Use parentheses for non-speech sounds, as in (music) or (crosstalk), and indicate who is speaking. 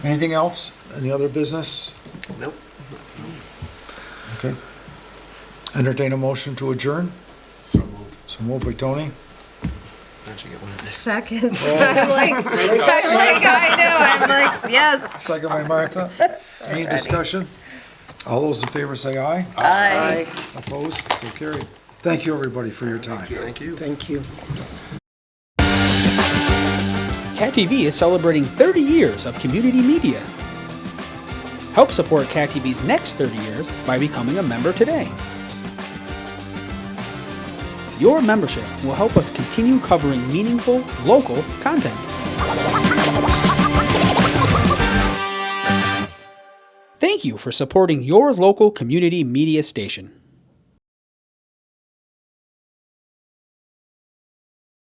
Speaker 1: Anything else? Any other business?
Speaker 2: Nope.
Speaker 1: Okay. Entertain a motion to adjourn?
Speaker 2: So moved.
Speaker 1: So moved by Tony.
Speaker 2: Don't you get one of these?
Speaker 3: Second. I'm (laughs) like, I'm like, I know, I'm like, yes.
Speaker 1: Second by Martha. Any discussion? All those in favor say aye.
Speaker 3: Aye.
Speaker 1: Opposed? So carried. Thank you, everybody, for your time.
Speaker 2: Thank you.
Speaker 4: Thank you.
Speaker 5: Cat TV is celebrating 30 years of community media. Help support Cat TV's next 30 years by becoming a member today. Your membership will help us continue covering meaningful, local content. Thank you for supporting your local community media station.